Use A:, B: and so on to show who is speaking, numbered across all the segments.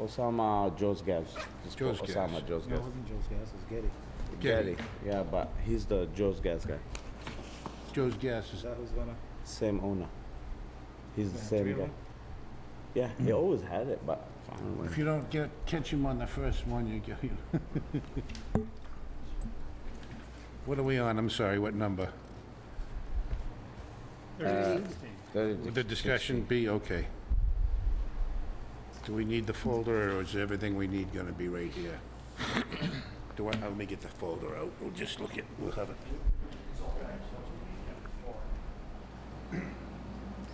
A: Osama Josgas. It's called
B: Josgas.
A: Osama Josgas.
C: No, it wasn't Joe's gas, it's Getty.
B: Getty.
A: Getty. Yeah, but he's the Josgas guy.
B: Joe's Gas
C: Is
B: is,
C: that who's gonna?
A: Same owner. He's the
C: Yeah,
A: same
C: three of
A: guy.
C: them?
A: Yeah, he always had it, but I don't know.
B: if you don't get, catch him on the first one, you get, you What are we on? I'm sorry, what number? Would the discussion be okay? Do we need the folder, or is everything we need gonna be right here? Do I, let me get the folder out, we'll just look at, we'll have it.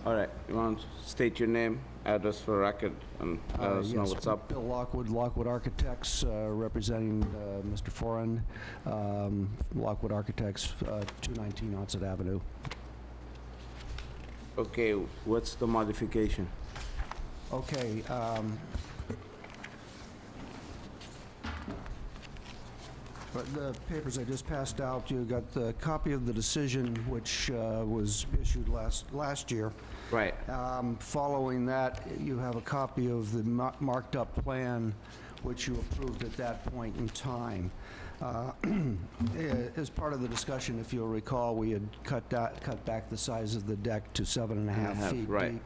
A: All right, you want to state your name, address for record, and let
D: Uh,
A: us know
D: yes,
A: what's up.
D: Bill Lockwood, Lockwood Architects, uh, representing uh, Mr. Foreign, um, Lockwood Architects, uh, 219 Onset Avenue.
A: Okay, what's the modification?
D: Okay, um... But the papers I just passed out, you got the copy of the decision which uh, was issued last, last year.
A: Right.
D: Um, Following that, you have a copy of the mar- marked-up plan which you approved at that point in time. Uh, eh, As part of the discussion, if you'll recall, we had cut that, cut back the size of the deck to seven and a
A: and a half,
D: half feet deep.
A: right.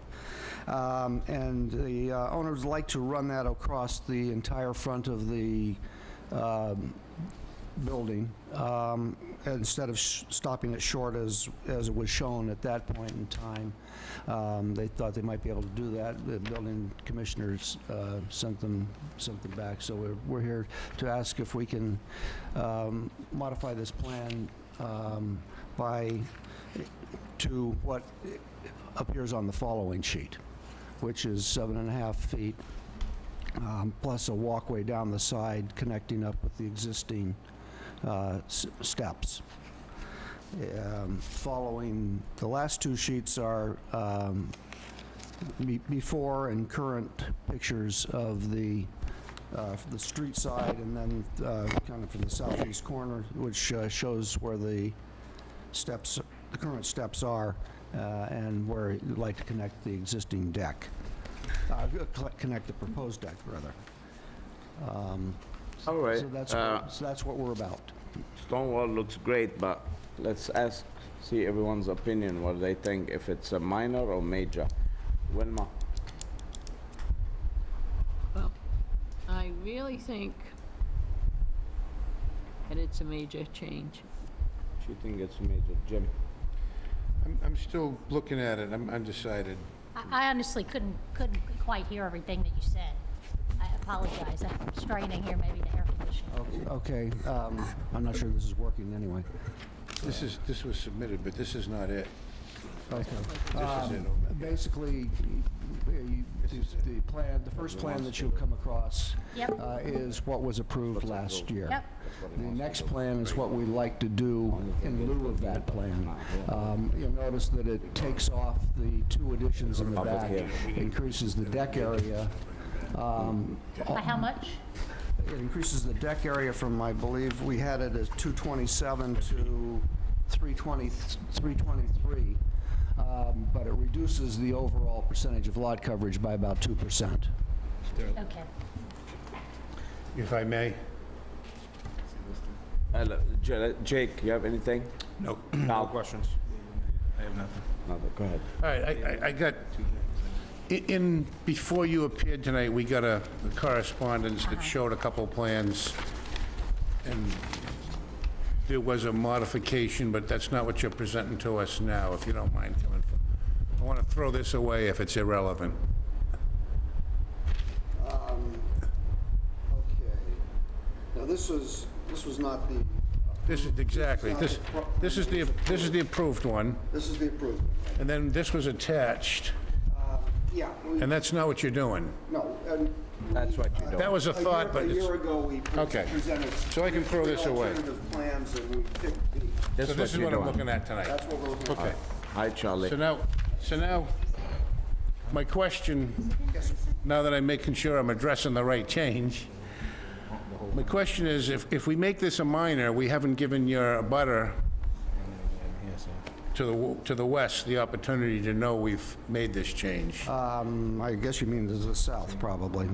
D: Um, And the uh, owners like to run that across the entire front of the um, building, um, instead of sh- stopping it short as, as it was shown at that point in time. Um, They thought they might be able to do that. The building commissioners uh, sent them, sent them back. So we're, we're here to ask if we can um, modify this plan um, by, to what appears on the following sheet, which is seven and a half feet, um, plus a walkway down the side connecting up with the existing uh, s- steps. Um, Following, the last two sheets are um, be- before and current pictures of the, uh, the street side, and then uh, kind of from the southeast corner, which uh, shows where the steps, the current steps are, uh, and where you'd like to connect the existing deck, Uh, co- connect the proposed deck, rather. Um,
A: All right.
D: So that's,
A: uh,
D: what- so that's what we're about.
A: Stonewall looks great, but let's ask, see everyone's opinion, what they think, if it's a minor or major. Wilma,
E: I really think that it's a major change.
A: she think it's major. Jim?
B: I'm, I'm still looking at it, I'm undecided.
F: I I honestly couldn't, couldn't quite hear everything that you said. I apologize. I'm straining here maybe the air conditioning.
D: Okay, um, I'm not sure this is working anyway.
B: This is, this was submitted, but this is not it.
D: Okay.
B: This is it. over.
D: Basically, you- the the plan, the first plan that you'll come across
F: Yep.
D: uh, is what was approved last year.
F: Yep.
D: The next plan is what we like to do in lieu of that plan. Um, You'll notice that it takes off the two additions in the
A: Up it
D: back,
A: here.
D: increases the deck area. um,
F: By how much?
D: It increases the deck area from, I believe, we had it as 227 to 320, 323. um, But it reduces the overall percentage of lot coverage by about 2%.
F: Okay.
B: If I may?
A: Hello, J- Jake, you have anything?
G: No,
A: No.
G: no questions. I have nothing.
A: No, go ahead.
B: All right, I- I, I got, i- in, before you appeared tonight, we got a correspondence that showed a couple plans, and there was a modification, but that's not what you're presenting to us now, if you don't mind coming. for- I want to throw this away if it's irrelevant.
D: Okay. Now, this was, this was not the,
B: This is, exactly, this, this is the, this is the approved one,
D: this is the approved.
B: and then this was attached,
D: Yeah,
B: and that's not what you're doing.
D: no, and...
A: That's what you
B: That was a thought, but it's,
D: ago, we
B: Okay. So I can throw this away.
D: plans, and we picked the...
B: so this is what I'm looking at tonight.
D: what we're looking
B: Okay.
A: Hi, Charlie.
B: So now, so now, my question, now that I'm making sure I'm addressing the right change, my question is, if, if we make this a minor, we haven't given your butter to the, w- to the west the opportunity to know we've made this change.
D: Mm, Um, I guess you mean to the south, probably.